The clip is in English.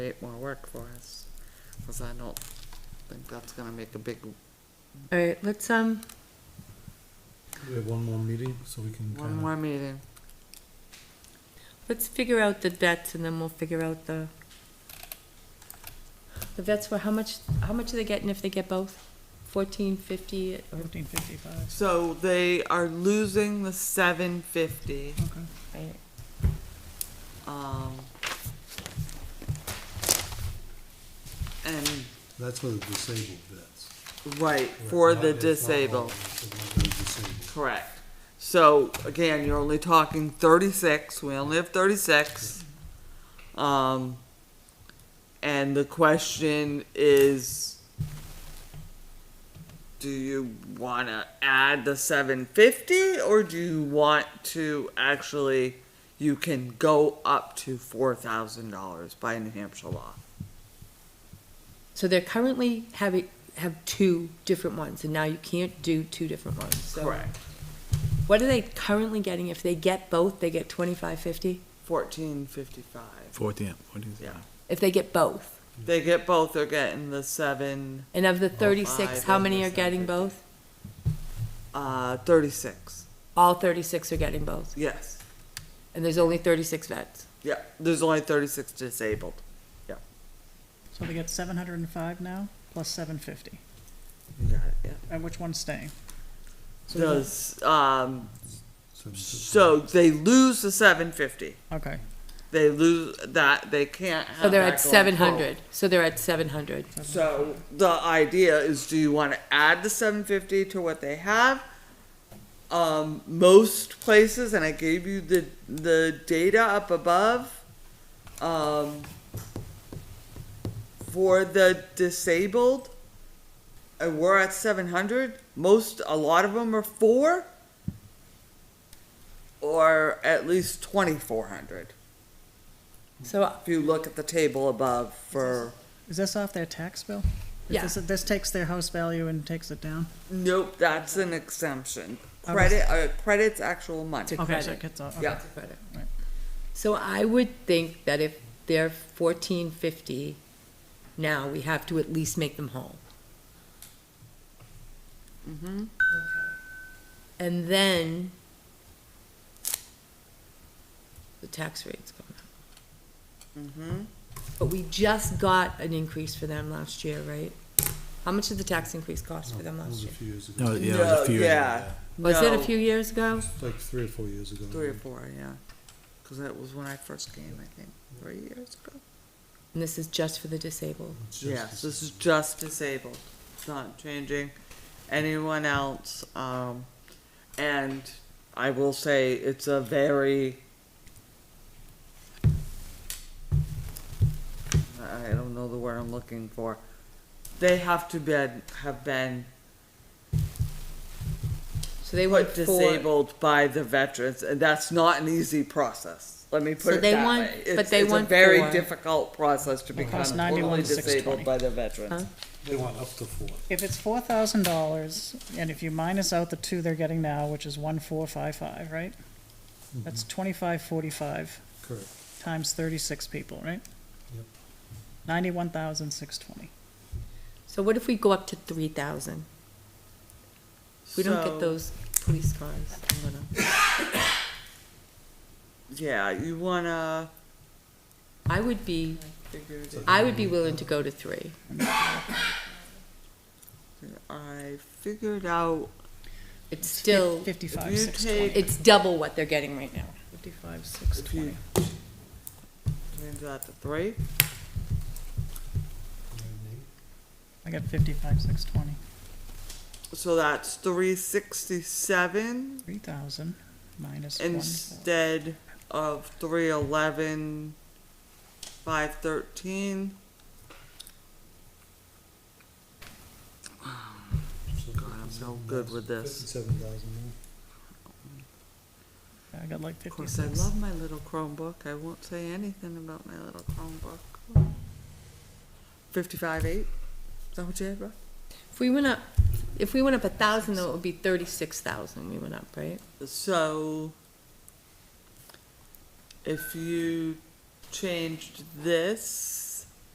create more work for us, because I don't think that's gonna make a big, All right, let's, um, We have one more meeting, so we can one kind of, more meeting. let's figure out the vets and then we'll figure out the, the vets were, how much, how much are they getting if they get both? Fourteen, fifty, or, Fifteen fifty-five, So they are losing the seven fifty, okay. right? um. And, that's for the disabled vets. right, for Not- the it's not all disabled, of them, it's not the disabled. correct. So, again, you're only talking thirty-six, we only have thirty-six. Um, and the question is, do you wanna add the seven fifty, or do you want to actually, you can go up to four thousand dollars by New Hampshire law? So they're currently having, have two different ones, and now you can't do two different ones, so. Correct. What are they currently getting? If they get both, they get twenty-five, fifty? Fourteen fifty-five, Fourteen, fourteen. yeah. If they get both? They get both, they're getting the seven, And of the Oh, five thirty-six, how and many the are getting 750. both? uh, thirty-six, All thirty-six are getting both, yes. and there's only thirty-six vets. Yeah, there's only thirty-six disabled. So they get seven hundred and five now, plus seven fifty, Got it, yeah. and which one's staying? Does, um, So- so they lose the seven fifty. Okay, They lose that, they can't have So they're that at going seven forward. hundred, so they're at seven hundred. Hmm. So the idea is, do you wanna add the seven fifty to what they have? Um, most places, and I gave you the, the data up above, um, for the disabled, and we're at seven hundred, most, a lot of them are four, or at least twenty-four hundred, So, if you look at the table above for, is this off their tax bill? Is Yeah. this- This takes their house value and takes it down? nope, that's an exemption. I was- Credit, uh, credit's actual money, To Okay, so credit. it gets off, okay. yeah. so I would think that if they're fourteen fifty now, we have to at least make them whole. Mm-hmm. And then the tax rate's going up. Mm-hmm. But we just got an increase for them last year, right? How much did the tax increase cost for them That last was a year? few years ago. No, yeah, it was No, a few. years yeah. ago. Was it a No. few years ago? It's Like three or four years ago. Three or four, yeah. Because that was when I first came, I think, three years ago. And this is just for the disabled. It's just- Yes, this is just disabled. It's not changing anyone else. Um, and I will say it's a very. I don't know the word I'm looking for. They have to be, have been So they want put four. disabled by the veterans, and that's not an easy process. Let me put So it they that want- way. but It's, they it's want a very four. difficult process to become Cost 91, totally 620. disabled by the veterans. Huh? They want up to four. If it's four thousand dollars, and if you minus out the two they're getting now, which is one four five five, right? Mm-hmm. That's twenty-five forty-five Correct. times thirty-six people, right? Yep. Ninety-one thousand six twenty. So what if we go up to three thousand? We don't So, get those police cars. I'm gonna- Yeah, you wanna. I would be, figure it I would be willing to go to three. out. I figured out It's still, Fifty-five you six take- twenty. it's double what they're getting right now. Fifty-five six if you twenty. change that to three. I got fifty-five six twenty. So that's three sixty-seven Three thousand minus one. instead of three eleven, five thirteen. So God, I'm so good with this. Fifty-seven thousand more. I got like Of course, I fifty-six. love my little Chromebook. I won't say anything about my little Chromebook. Fifty-five eight. Is that what you had, Rob? If we went up, if we went up a thousand, though, it would be thirty-six thousand we went up, right? So, if you changed this